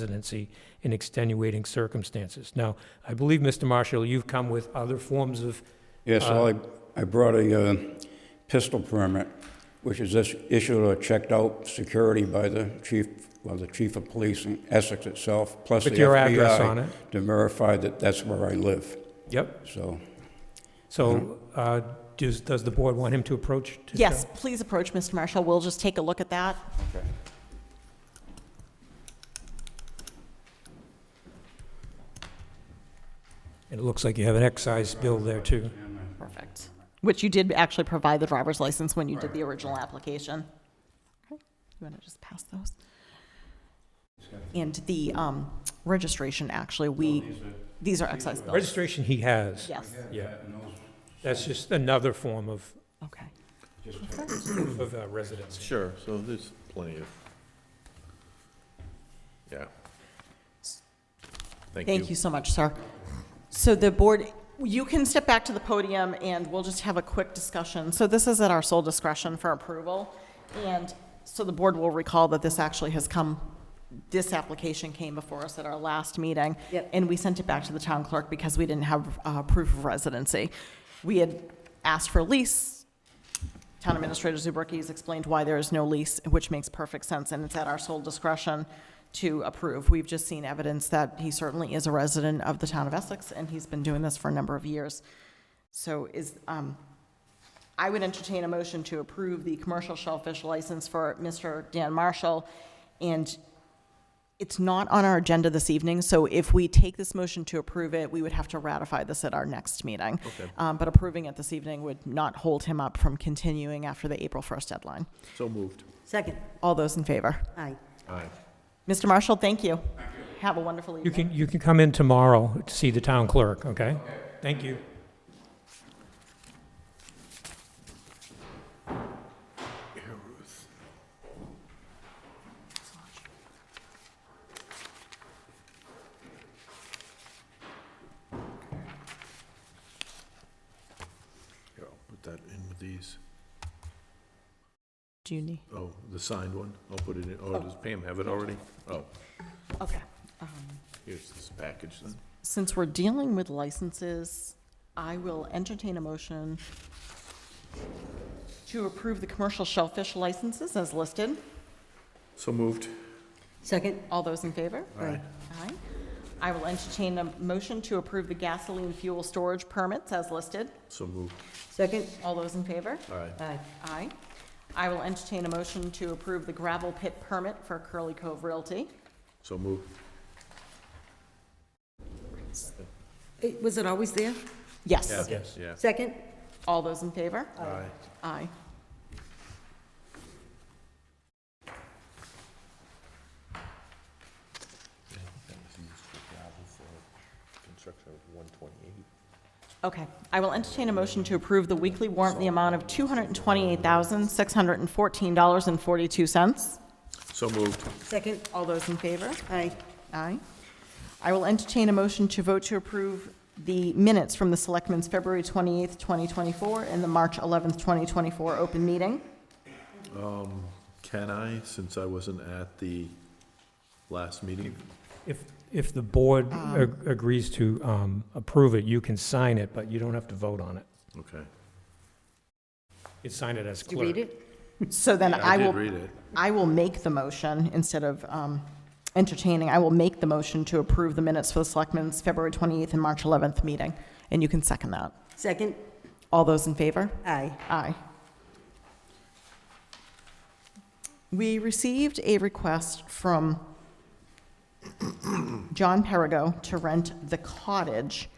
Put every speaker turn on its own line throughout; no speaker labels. residency in extenuating circumstances. Now, I believe, Mr. Marshall, you've come with other forms of,
Yes, I, I brought a uh, pistol permit, which is is- issued or checked out security by the chief, well, the chief of police in Essex itself, plus the
with your address on
FBI
it.
to verify that that's where I live,
Yep.
so.
So uh, does, does the board want him to approach? to
Yes,
show?
please approach Mr. Marshall. We'll just take a look at that.
And it looks like you have an excise bill there, too.
Perfect. Which you did actually provide the driver's license when you did the original application. Okay, You want to just pass those? And the um, registration, actually, we, these are excise bills.
Registration he has.
Yes,
Yeah. That's just another form of,
okay.
of uh, residency.
Sure, so there's plenty of, yeah.
Thank you so much, sir. So the board, you can step back to the podium and we'll just have a quick discussion. So this is at our sole discretion for approval. And so the board will recall that this actually has come, this application came before us at our last meeting.
Yep.
And we sent it back to the town clerk because we didn't have uh, proof of residency. We had asked for lease. Town Administrator Zubricki has explained why there is no lease, which makes perfect sense, and it's at our sole discretion to approve. We've just seen evidence that he certainly is a resident of the town of Essex, and he's been doing this for a number of years. So is, um, I would entertain a motion to approve the commercial shellfish license for Mr. Dan Marshall. And it's not on our agenda this evening, so if we take this motion to approve it, we would have to ratify this at our next meeting. Um, But approving it this evening would not hold him up from continuing after the April 1st deadline.
So moved.
Second,
All those in favor?
aye.
Aye.
Mr. Marshall, thank you. Have a wonderful evening.
You can, you can come in tomorrow to see the town clerk, okay? Thank you.
Here, I'll put that in with these.
Do you need?
Oh, the signed one, I'll put it in, oh, does Pam have it already? Oh,
Okay.
here's this package then.
Since we're dealing with licenses, I will entertain a motion to approve the commercial shellfish licenses as listed.
So moved.
Second,
All those in favor?
aye.
Aye. I will entertain a motion to approve the gasoline fuel storage permits as listed.
So moved.
Second,
All those in favor?
Aye.
aye.
Aye. I will entertain a motion to approve the gravel pit permit for Curly Cove Realty.
So moved.
Eh, Was it always there?
Yes.
Yes.
Yeah.
Second,
All those in favor?
Aye.
Aye.
Construction of one twenty-eight.
Okay. I will entertain a motion to approve the weekly warrant in the amount of $228,614.42.
So moved.
second,
All those in favor?
aye.
Aye. I will entertain a motion to vote to approve the minutes from the Selectmen's February 28th, 2024, and the March 11th, 2024 open meeting.
Can I, since I wasn't at the last meeting?
If, if the board
Um.
ag- agrees to um, approve it, you can sign it, but you don't have to vote on it.
Okay.
You can sign it as
Did you
clerk.
read it?
So then I
did
will,
read it.
I will make the motion instead of um, entertaining. I will make the motion to approve the minutes for the Selectmen's February 28th and March 11th meeting, and you can second that.
Second,
All those in favor?
aye.
Aye. We received a request from John Perigo to rent the cottage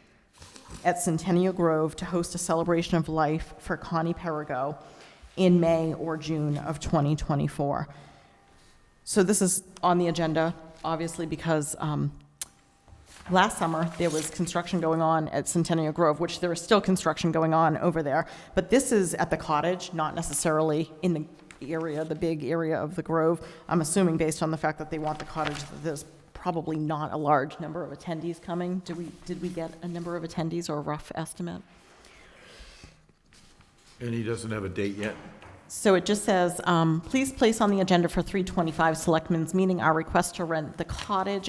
at Centennial Grove to host a celebration of life for Connie Perigo in May or June of 2024. So this is on the agenda, obviously, because um, last summer, there was construction going on at Centennial Grove, which there is still construction going on over there. But this is at the cottage, not necessarily in the area, the big area of the Grove. I'm assuming based on the fact that they want the cottage, that there's probably not a large number of attendees coming. Do we, did we get a number of attendees or a rough estimate?
And he doesn't have a date yet?
So it just says, um, please place on the agenda for 325 Selectmen's Meeting our request to rent the cottage